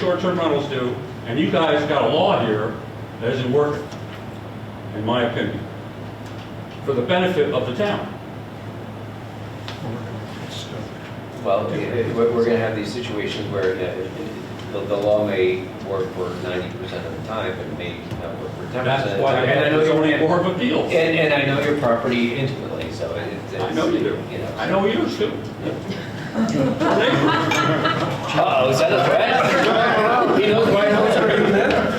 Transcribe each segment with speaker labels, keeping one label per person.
Speaker 1: short-term rentals do, and you guys got a law here that isn't working, in my opinion, for the benefit of the town.
Speaker 2: Well, it- it- we're we're going to have these situations where uh, it- it- the the law may work for 90% of the time, but may not work for 10% of the time.
Speaker 1: That's why they
Speaker 2: And I
Speaker 1: have
Speaker 2: know
Speaker 1: the
Speaker 2: your-
Speaker 1: zoning board of appeals.
Speaker 2: And, and I know your property intimately, so it- it's.
Speaker 1: I know you do.
Speaker 2: know.
Speaker 1: I know you do.
Speaker 2: Uh-oh, is that a threat? He knows where I live.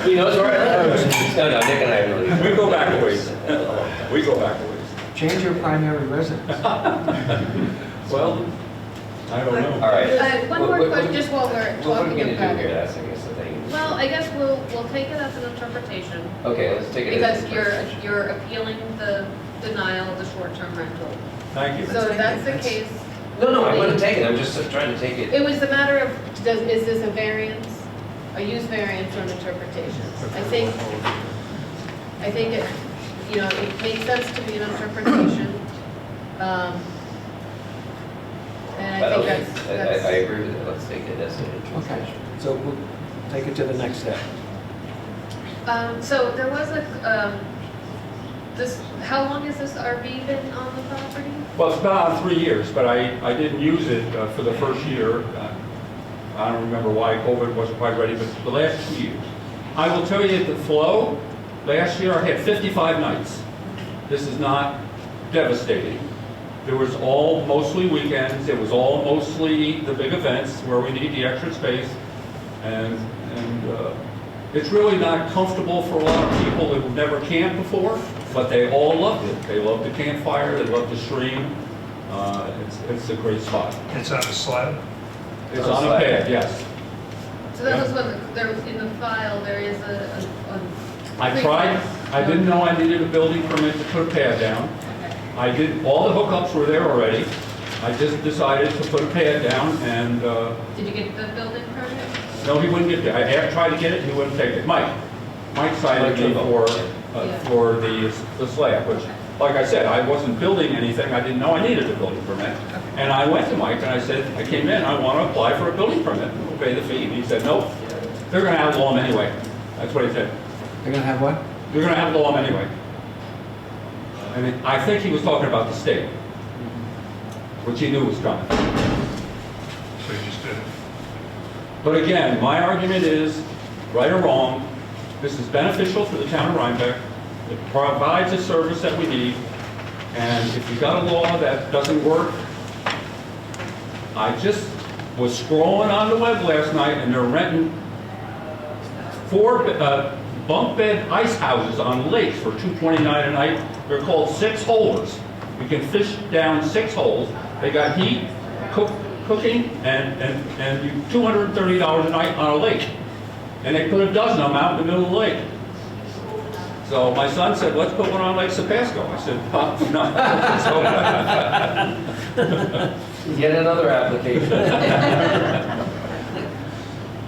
Speaker 2: He knows where I live. No, no, Nick and I have really.
Speaker 1: We go back a ways. We go back a ways.
Speaker 3: Change your primary residence.
Speaker 1: Well, I don't know.
Speaker 2: All right.
Speaker 4: Uh, One
Speaker 2: What-
Speaker 4: more
Speaker 2: what-
Speaker 4: question, just while we're
Speaker 2: What are we
Speaker 4: talking
Speaker 2: going to
Speaker 4: about
Speaker 2: do here,
Speaker 4: it.
Speaker 2: that's, I guess, the thing.
Speaker 4: Well, I guess we'll, we'll take it as an interpretation,
Speaker 2: Okay, let's take it. as
Speaker 4: because
Speaker 2: a
Speaker 4: you're,
Speaker 2: question.
Speaker 4: you're appealing the denial of the short-term rental.
Speaker 1: Thank you.
Speaker 4: So if that's the case,
Speaker 2: No, no, I wouldn't take it, I'm just trying to take it.
Speaker 4: it was a matter of, does, is this a variance, a use variance or an interpretation? I think, I think it, you know, it makes sense to be an interpretation. um, And I think
Speaker 2: okay,
Speaker 4: that's,
Speaker 2: I- I-
Speaker 4: that's.
Speaker 2: I agree with it, let's take it as an
Speaker 3: Okay,
Speaker 2: interpretation.
Speaker 3: so we'll take it to the next step.
Speaker 4: Um, so there was a, um, this, how long has this RV been on the property?
Speaker 1: Well, it's been on three years, but I, I didn't use it uh, for the first year. Uh, I don't remember why COVID wasn't quite ready, but the last two years. I will tell you the flow, last year I had 55 nights. This is not devastating. There was all mostly weekends, it was all mostly the big events where we need the extra space. And, and uh, it's really not comfortable for a lot of people who've never camped before, but they all loved it. They loved the campfire, they loved the stream. Uh, It's, it's a great spot.
Speaker 5: It's on a slab.
Speaker 1: It's on a pad, yes.
Speaker 4: So that was what, there was, in the file, there is a, a- a.
Speaker 1: I tried, I didn't know I needed a building permit to put a pad down.
Speaker 4: Okay.
Speaker 1: I did, all the hookups were there already. I just decided to put a pad down and, uh,
Speaker 4: Did you get the building permit?
Speaker 1: no, he wouldn't get it. I had tried to get it, he wouldn't take it. Mike, Mike cited me for, uh, for the, the slab, which, like I said, I wasn't building anything, I didn't know I needed a building permit. And I went to Mike and I said, I came in, I want to apply for a building permit, We'll pay the fee. And he said, nope, they're going to outlaw him anyway. That's what he said.
Speaker 3: You're gonna have what?
Speaker 1: You're gonna have law anyway. I mean, I think he was talking about the state, which he knew was coming.
Speaker 5: So you just did it.
Speaker 1: But again, my argument is, right or wrong, this is beneficial for the town of Rhinebeck. It provides a service that we need, and if you got a law that doesn't work, I just was scrolling on the web last night, and they're renting four uh, bunk bed ice houses on lakes for $2.29 a night. They're called six holers. You can fish down six holes. They got heat, cook, cooking, and, and, and you- $230 a night on a lake. And they put a dozen of them out in the middle of the lake. So my son said, let's put one on Lake Sapasco. I said, "Pop, no.
Speaker 2: Yet another application.
Speaker 1: So,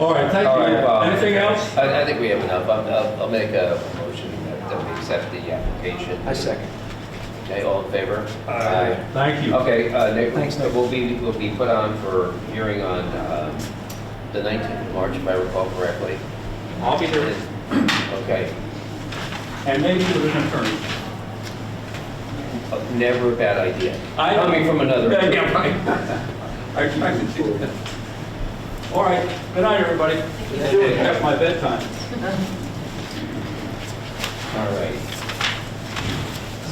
Speaker 1: All right, thank
Speaker 2: All right, well-
Speaker 1: you. Anything else?
Speaker 2: I, I think we have enough, I'll, I'll- I'll make a motion that that we accept the application.
Speaker 3: I second.
Speaker 2: Okay, all in favor?
Speaker 5: Aye.
Speaker 1: Thank you.
Speaker 2: Okay, uh, Nick,
Speaker 3: Thanks, Nick.
Speaker 2: we'll be, we'll be put on for hearing on, um, the nineteenth of March, if I recall correctly.
Speaker 1: I'll be here.
Speaker 2: Okay,
Speaker 1: And maybe you an attorney.
Speaker 2: Uh, never a bad idea.
Speaker 1: I-
Speaker 2: Coming from another.
Speaker 1: Yeah, yeah, right. I tried to do that. All right, good night, everybody. It's two o'clock, my bedtime.
Speaker 2: All right.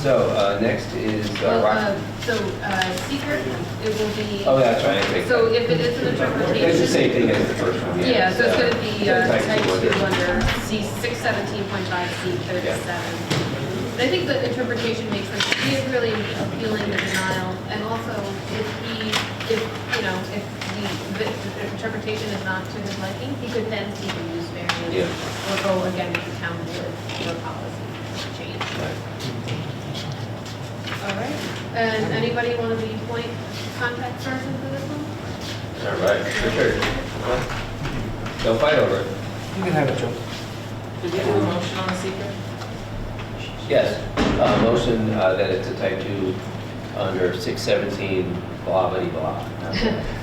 Speaker 2: So, uh, next is, uh,
Speaker 4: Well,
Speaker 2: Rock.
Speaker 4: uh, So, uh, secret, it will be.
Speaker 2: Oh, that's right, I think.
Speaker 4: So if it is an interpretation.
Speaker 2: It's the same thing as the first one, yeah.
Speaker 4: Yeah, so it's gonna be uh,
Speaker 2: Type two
Speaker 4: type
Speaker 2: order.
Speaker 4: two under C six seventeen point five, C thirty-seven. And I think the interpretation makes sense, he is really appealing the denial, and also if he, if, you know, if the, the interpretation is not to his liking, he could then seek a use
Speaker 2: Yeah.
Speaker 4: variance. Or go again with the town board for policy change. All right, and anybody wanna be point contact person for this one?
Speaker 2: All right, for sure. Don't fight over it.
Speaker 3: You can have it, Joe.
Speaker 6: Did we have a motion on the secret?
Speaker 2: Yes, uh, motion uh, that it's a type 2 under 617 blah, blah, blah.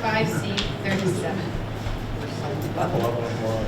Speaker 4: Five C thirty-seven.